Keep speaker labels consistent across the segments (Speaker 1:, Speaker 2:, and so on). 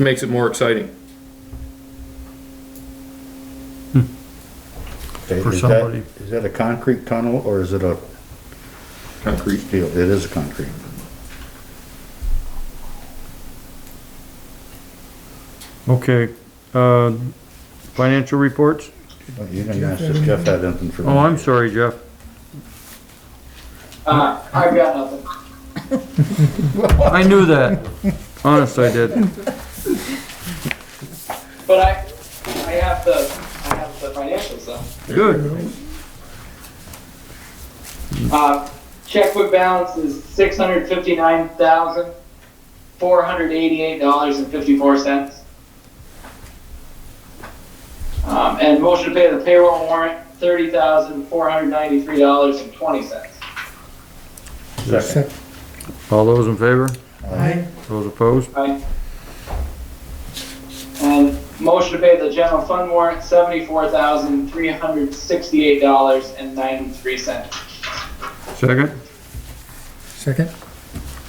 Speaker 1: Makes it more exciting.
Speaker 2: Okay,
Speaker 3: For
Speaker 2: is that-
Speaker 3: somebody.
Speaker 2: Is that a concrete tunnel or is it a
Speaker 1: Concrete.
Speaker 2: steel? It is concrete.
Speaker 3: Okay, uh, financial reports?
Speaker 2: Well, You didn't ask if Jeff had anything for me.
Speaker 3: Oh, I'm sorry, Jeff.
Speaker 4: Uh, I've got nothing.
Speaker 3: I knew that. Honest, I did.
Speaker 4: But I, I have the, I have the financials though.
Speaker 3: Good.
Speaker 4: Uh, checkbook balance is six hundred fifty-nine thousand, four hundred eighty-eight dollars and fifty-four cents. Um, and motion to pay the payroll warrant, thirty thousand, four hundred ninety-three dollars and twenty cents.
Speaker 2: Second.
Speaker 3: All those in favor?
Speaker 2: Aye.
Speaker 3: Those opposed?
Speaker 4: Right. And motion to pay the general fund warrant, seventy-four thousand, three hundred sixty-eight dollars and ninety-three cents.
Speaker 3: Second?
Speaker 5: Second?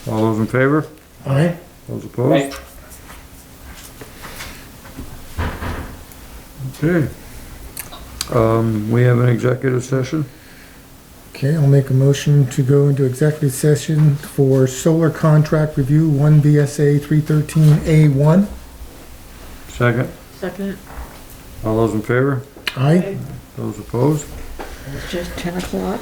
Speaker 3: All those in favor?
Speaker 5: Aye.
Speaker 3: Those
Speaker 4: Right.
Speaker 3: opposed? Okay. Um, we have an executive session?
Speaker 5: Okay, I'll make a motion to go into executive session for solar contract review, one BSA three thirteen A one.
Speaker 3: Second?
Speaker 6: Second,
Speaker 3: All those in favor?
Speaker 5: Aye.
Speaker 3: Those opposed?
Speaker 6: it's just ten o'clock.